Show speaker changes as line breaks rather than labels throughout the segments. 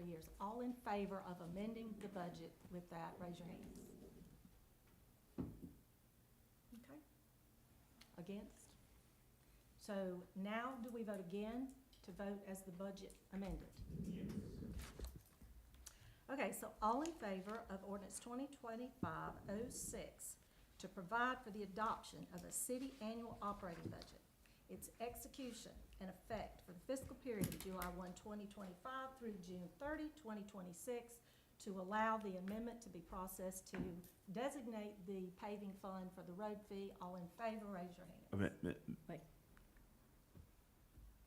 years. All in favor of amending the budget with that, raise your hands. Okay. Against? So now do we vote again to vote as the budget amended? Okay, so all in favor of ordinance 2025-06 to provide for the adoption of a city annual operating budget, its execution and effect for the fiscal period of July 1, 2025 through June 30, 2026, to allow the amendment to be processed to designate the paving fund for the road fee. All in favor, raise your hand.
Wait.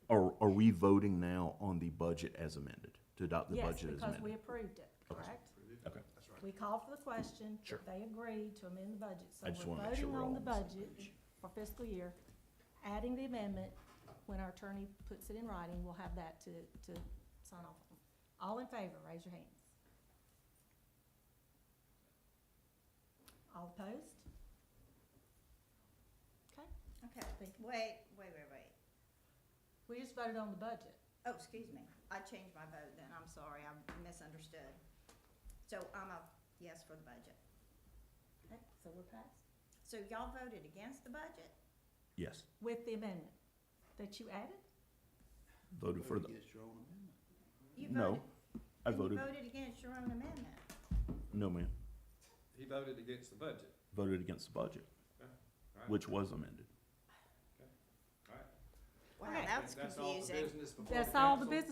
Are, are we voting now on the budget as amended, to adopt the
Yes,
budget as
because we
amended?
approved it, correct?
Okay.
We called for the question.
Sure.
They agreed to amend the budget, so
I just
we're
wanna make sure
voting
we're
on the
all on the same
budget for fiscal year, adding the amendment. When our attorney puts it in writing, we'll have that to, to sign off on. All in favor, raise your hands. All opposed? Okay,
Okay, wait, wait, wait, wait.
we just voted on the budget.
Oh, excuse me. I changed my vote then. I'm sorry. I misunderstood. So I'm a yes for the budget.
Okay, so we're passed.
So y'all voted against the budget?
Yes,
With the amendment that you added?
voted for the,
Against your own amendment.
You
no,
voted-
I
then
voted,
You voted against your own amendment.
no, ma'am,
He voted against the budget.
voted against the budget,
All right.
which was amended.
All right.
Wow,
Okay.
that was
That's all the
confusing.
business before
That's all the
council.
business